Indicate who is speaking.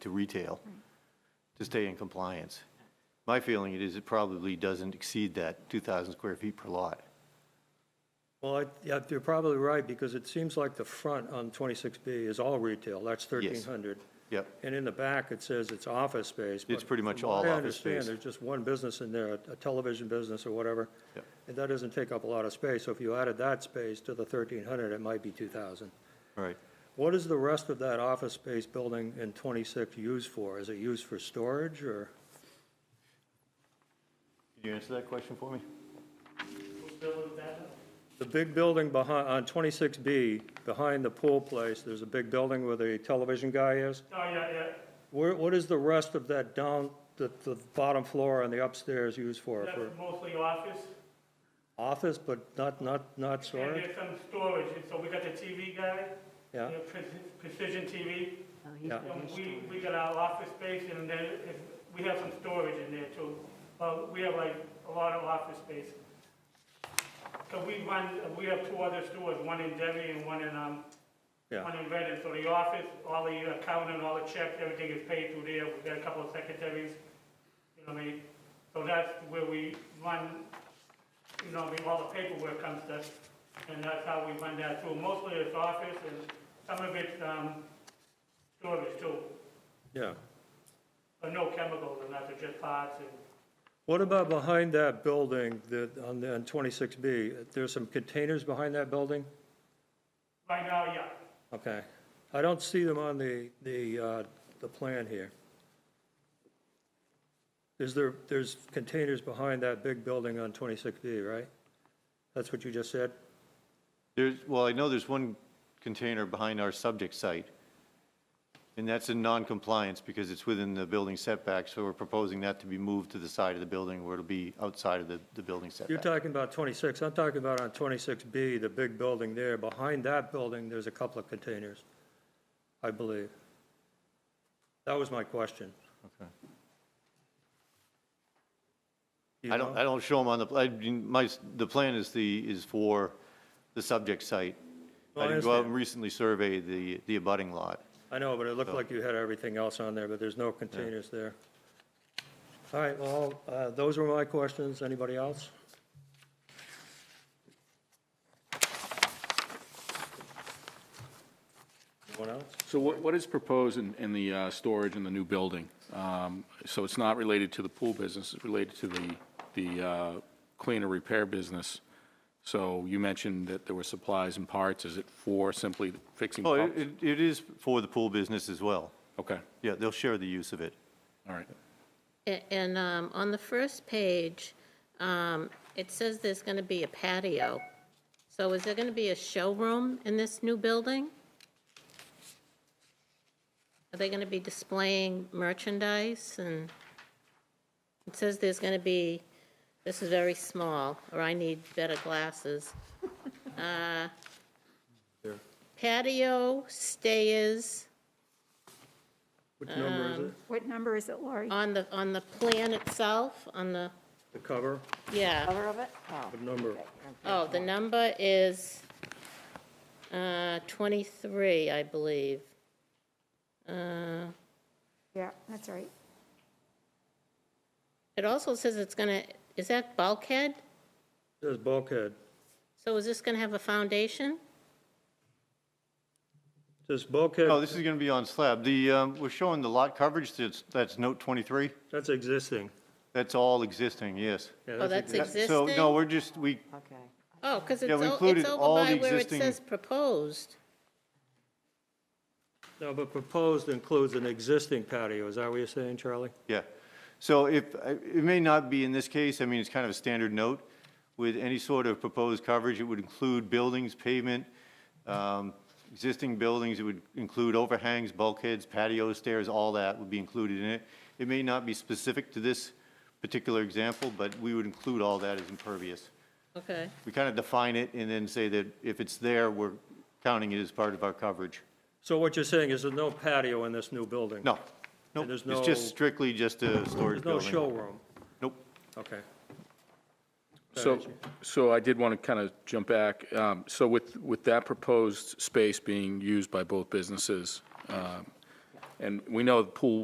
Speaker 1: to retail to stay in compliance. My feeling it is it probably doesn't exceed that 2,000 square feet per lot.
Speaker 2: Well, I- yeah, you're probably right, because it seems like the front on 26B is all retail, that's 1,300.
Speaker 1: Yep.
Speaker 2: And in the back, it says it's office space. but
Speaker 1: It's pretty much
Speaker 2: from
Speaker 1: all
Speaker 2: what I
Speaker 1: office space.
Speaker 2: understand, there's just one business in there, a television business or whatever,
Speaker 1: Yep.
Speaker 2: and that doesn't take up a lot of space, so if you added that space to the 1,300, it might be 2,000.
Speaker 1: All right.
Speaker 2: What is the rest of that office space building in 26 used for? Is it used for storage, or?
Speaker 1: Can you answer that question for me?
Speaker 2: The big building behind, on 26B, behind the pool place, there's a big building where the television guy is.
Speaker 3: Oh, yeah, yeah.
Speaker 2: Where, what is the rest of that down, the, the bottom floor and the upstairs used for?
Speaker 3: That's
Speaker 2: For
Speaker 3: mostly office.
Speaker 2: office, but not, not, not
Speaker 3: And
Speaker 2: storage?
Speaker 3: there's some storage, and so we got the TV guy.
Speaker 2: Yeah.
Speaker 3: you know, Pre- Precision TV.
Speaker 2: Yeah,
Speaker 3: And we, we got our office space, and then if, we have some storage in there too. But we have like a lot of office space. So we run, we have two other stores, one in Denver and one in, um,
Speaker 2: yeah.
Speaker 3: one in Redden. So the office, all the accounting, all the checks, everything is paid through there. We've got a couple of secretaries, you know what I mean? So that's where we run, you know, what I mean, all the paperwork comes to, us, and that's how we run that through. Mostly it's office and some of it's, um, storage too,
Speaker 2: Yeah.
Speaker 3: but no chemicals and that's just parts and,
Speaker 2: What about behind that building, the, on the, on 26B? There's some containers behind that building?
Speaker 3: right now, yeah.
Speaker 2: Okay. I don't see them on the, the, uh, the plan here. Is there, there's containers behind that big building on 26B, right? That's what you just said?
Speaker 1: There's, well, I know there's one container behind our subject site, and that's in non-compliance because it's within the building setback, so we're proposing that to be moved to the side of the building where it'll be outside of the, the building
Speaker 2: You're
Speaker 1: setback.
Speaker 2: talking about 26, I'm talking about on 26B, the big building there. Behind that building, there's a couple of containers, I believe. That was my question.
Speaker 1: Okay.
Speaker 2: Do you
Speaker 1: I
Speaker 2: know?
Speaker 1: don't, I don't show them on the, I, mean, my, s- the plan is the, is for the subject site.
Speaker 2: No, I
Speaker 1: I didn't go out
Speaker 2: understand.
Speaker 1: and recently survey the, the abutting lot.
Speaker 2: I know, but it looked like you had everything else on there, but there's no containers there. All right, well, uh, those were my questions. Anybody else? Anyone else?
Speaker 4: So what, what is proposed in, in the uh, storage in the new building? Um, So it's not related to the pool business, it's related to the, the uh, cleaner repair business. So you mentioned that there were supplies and parts, is it for simply fixing
Speaker 1: Oh, it,
Speaker 4: pumps?
Speaker 1: it- it is for the pool business as well.
Speaker 4: Okay,
Speaker 1: Yeah, they'll share the use of it.
Speaker 4: all right.
Speaker 5: A- And um, on the first page, um, it says there's going to be a patio. So is there going to be a showroom in this new building? Are they going to be displaying merchandise? And it says there's going to be, this is very small, or I need better glasses. Uh, Patio, stairs,
Speaker 2: Which number is it?
Speaker 6: What number is it, Lori?
Speaker 5: on the, on the plan itself, on the,
Speaker 2: The cover?
Speaker 5: yeah.
Speaker 7: Cover of it? Oh.
Speaker 2: What number?
Speaker 5: Oh, the number is uh, 23, I believe. Uh,
Speaker 6: Yeah, that's right.
Speaker 5: It also says it's going to, is that bulkhead?
Speaker 2: Says bulkhead.
Speaker 5: So is this going to have a foundation?
Speaker 2: Says
Speaker 1: No,
Speaker 2: bulkhead,
Speaker 1: Oh, this is going to be on slab. The, um, we're showing the lot coverage, that's, that's note 23.
Speaker 2: that's existing.
Speaker 1: That's all existing, yes.
Speaker 2: Yeah,
Speaker 5: Oh, that's
Speaker 2: exi-
Speaker 5: existing?
Speaker 1: So, no, we're just, we,
Speaker 7: Okay.
Speaker 5: Oh, because it's
Speaker 1: Yeah, we
Speaker 5: o-
Speaker 1: included
Speaker 5: it's
Speaker 1: all
Speaker 5: over by
Speaker 1: the
Speaker 5: where it
Speaker 1: existing-
Speaker 5: says proposed.
Speaker 2: No, but proposed includes an existing patio, is that what you're saying, Charlie?
Speaker 1: yeah. So if, it may not be in this case, I mean, it's kind of a standard note. With any sort of proposed coverage, it would include buildings, pavement, um, existing buildings, it would include overhangs, bulkheads, patios, stairs, all that would be included in it. It may not be specific to this particular example, but we would include all that as impervious.
Speaker 5: Okay,
Speaker 1: We kind of define it and then say that if it's there, we're counting it as part of our coverage.
Speaker 2: So what you're saying is there's no patio in this new building?
Speaker 1: No, no,
Speaker 2: And there's
Speaker 1: it's just
Speaker 2: no-
Speaker 1: strictly just a storage
Speaker 2: There's
Speaker 1: building.
Speaker 2: no showroom?
Speaker 1: Nope.
Speaker 2: Okay.
Speaker 4: So, so I did want to kind of jump back. Um, So with, with that proposed space being used by both businesses, um, And we know the pool